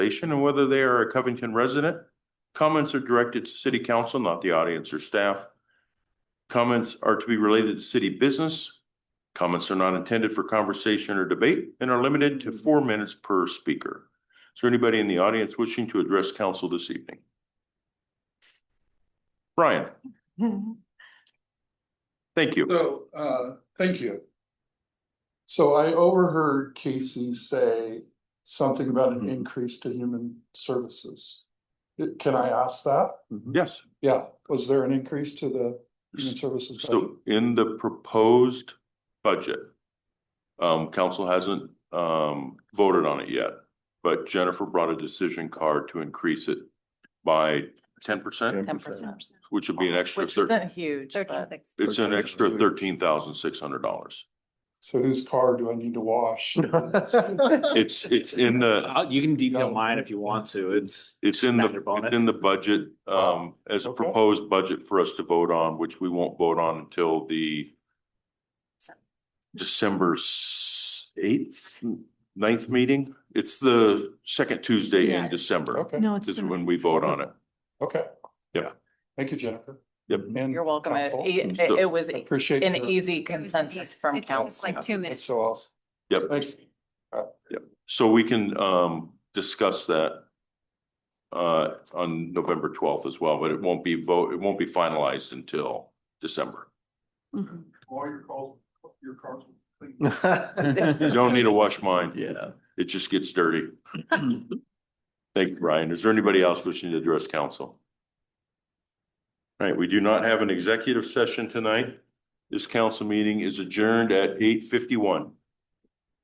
station and whether they are a Covington resident. Comments are directed to city council, not the audience or staff. Comments are to be related to city business. Comments are not intended for conversation or debate and are limited to four minutes per speaker. Is there anybody in the audience wishing to address council this evening? Brian, thank you. So, uh, thank you. So I overheard Casey say something about an Mhm. increase to human services. Uh, Can I ask that? Yes, Yeah, was there an increase to the human services? budget? so in the proposed budget, um, council hasn't, um, voted on it yet. But Jennifer brought a decision card to increase it by ten percent, Ten percent. which would be an extra Which thirty. isn't huge, but It's an extra thirteen thousand six hundred dollars. So whose car do I need to wash? It's, it's in the, Uh, You can No. detail mine if you want to, it's. it's in Matter the, bonnet. it's in the budget, um, as a Okay. proposed budget for us to vote on, which we won't vote on until the December s- eighth, ninth meeting. It's the second Tuesday in Yeah. December Okay, No, it's. is the- when we vote on it. okay. Yeah. Thank you, Jennifer. Yep. And You're welcome. It, counsel. it- it- it was I an Appreciate. your- easy It was consensus easy. from It took us council. Like two It's minutes. so awesome. Yep. Thanks. So we can um discuss that. Uh, on November twelfth as well, but it won't be vote, it won't be finalized until December. Mhm. All your calls, your cars. You don't need to wash mine. Yeah. It just gets dirty. Thank you, Brian. Is there anybody else wishing to address council? All right, we do not have an executive session tonight. This council meeting is adjourned at eight fifty-one.